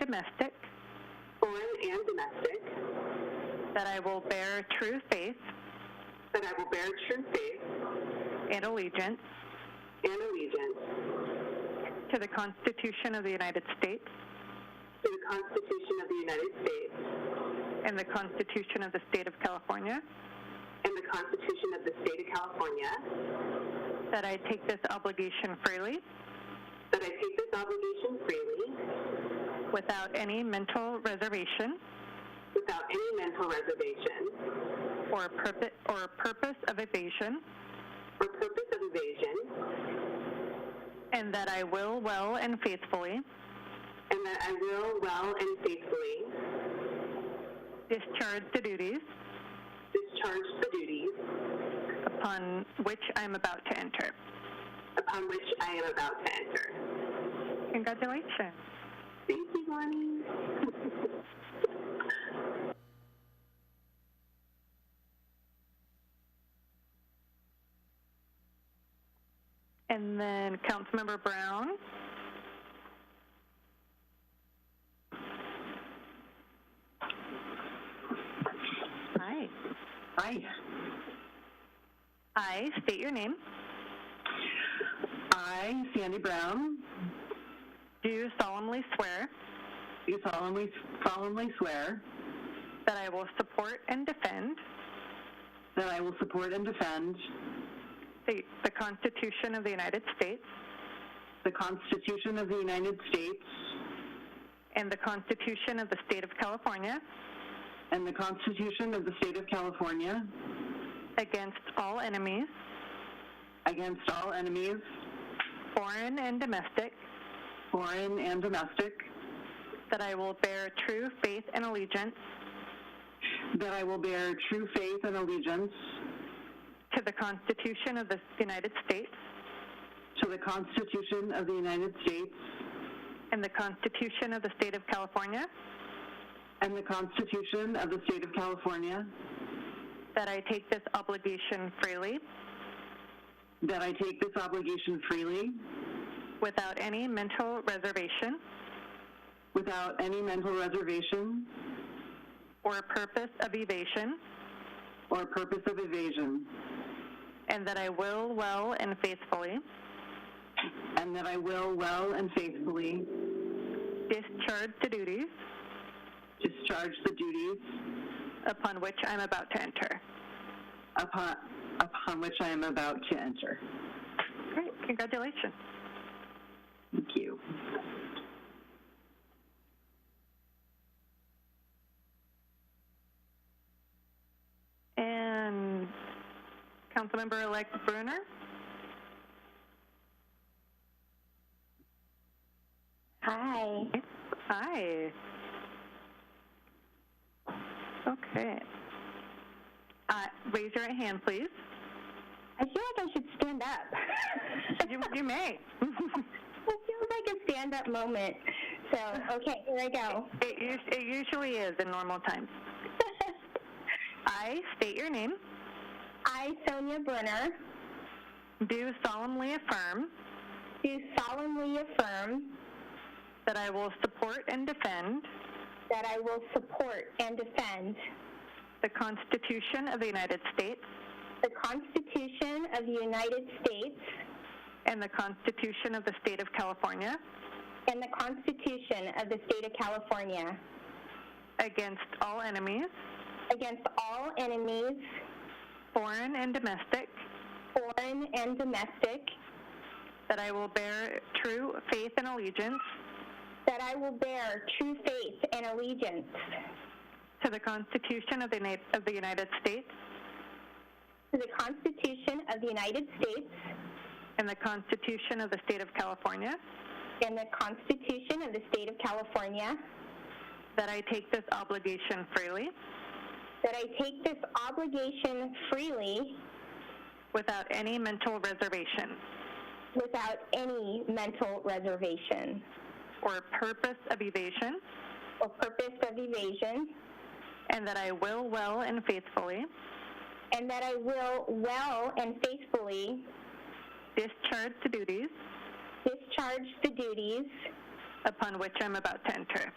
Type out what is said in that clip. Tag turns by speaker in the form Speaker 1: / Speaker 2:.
Speaker 1: domestic,
Speaker 2: foreign and domestic,
Speaker 1: that I will bear true faith
Speaker 2: that I will bear true faith
Speaker 1: and allegiance
Speaker 2: and allegiance
Speaker 1: to the Constitution of the United States
Speaker 2: to the Constitution of the United States
Speaker 1: and the Constitution of the State of California,
Speaker 2: and the Constitution of the State of California,
Speaker 1: that I take this obligation freely
Speaker 2: that I take this obligation freely
Speaker 1: without any mental reservation
Speaker 2: without any mental reservation
Speaker 1: or purpose, or purpose of evasion,
Speaker 2: or purpose of evasion,
Speaker 1: and that I will well and faithfully
Speaker 2: and that I will well and faithfully
Speaker 1: discharge the duties
Speaker 2: discharge the duties
Speaker 1: upon which I am about to enter.
Speaker 2: upon which I am about to enter.
Speaker 1: Congratulations.
Speaker 2: Thank you, Bonnie.
Speaker 1: And then Councilmember Brown. Hi.
Speaker 3: Hi.
Speaker 1: I state your name.
Speaker 3: I, Sandy Brown,
Speaker 1: Do solemnly swear
Speaker 3: do solemnly, solemnly swear
Speaker 1: that I will support and defend
Speaker 3: that I will support and defend
Speaker 1: the, the Constitution of the United States
Speaker 3: the Constitution of the United States
Speaker 1: and the Constitution of the State of California
Speaker 3: and the Constitution of the State of California
Speaker 1: against all enemies,
Speaker 3: against all enemies,
Speaker 1: foreign and domestic,
Speaker 3: foreign and domestic,
Speaker 1: that I will bear true faith and allegiance
Speaker 3: that I will bear true faith and allegiance
Speaker 1: to the Constitution of the United States
Speaker 3: to the Constitution of the United States
Speaker 1: and the Constitution of the State of California,
Speaker 3: and the Constitution of the State of California,
Speaker 1: that I take this obligation freely
Speaker 3: that I take this obligation freely
Speaker 1: without any mental reservation
Speaker 3: without any mental reservation
Speaker 1: or purpose of evasion,
Speaker 3: or purpose of evasion,
Speaker 1: and that I will well and faithfully
Speaker 3: and that I will well and faithfully
Speaker 1: discharge the duties
Speaker 3: discharge the duties
Speaker 1: upon which I'm about to enter.
Speaker 3: upon, upon which I am about to enter.
Speaker 1: Great, congratulations.
Speaker 3: Thank you.
Speaker 1: And Councilmember-elect Brunner?
Speaker 4: Hi.
Speaker 1: Hi. Okay. Uh, raise your right hand, please.
Speaker 4: I feel like I should stand up.
Speaker 1: You, you may.
Speaker 4: it feels like a stand up moment. So, okay, here I go.
Speaker 1: It, us- it usually is in normal times. I state your name.
Speaker 4: I, Sonia Brunner,
Speaker 1: Do solemnly affirm
Speaker 4: do solemnly affirm
Speaker 1: that I will support and defend
Speaker 4: that I will support and defend
Speaker 1: the Constitution of the United States
Speaker 4: the Constitution of the United States
Speaker 1: and the Constitution of the State of California
Speaker 4: and the Constitution of the State of California
Speaker 1: against all enemies,
Speaker 4: against all enemies,
Speaker 1: foreign and domestic,
Speaker 4: foreign and domestic,
Speaker 1: that I will bear true faith and allegiance
Speaker 4: that I will bear true faith and allegiance
Speaker 1: to the Constitution of the, Na- of the United States
Speaker 4: To the Constitution of the United States
Speaker 1: and the Constitution of the State of California,
Speaker 4: and the Constitution of the State of California,
Speaker 1: that I take this obligation freely
Speaker 4: that I take this obligation freely
Speaker 1: without any mental reservation
Speaker 4: without any mental reservation
Speaker 1: or purpose of evasion,
Speaker 4: or purpose of evasion,
Speaker 1: and that I will well and faithfully
Speaker 4: and that I will well and faithfully
Speaker 1: discharge the duties
Speaker 4: discharge the duties
Speaker 1: upon which I'm about to enter.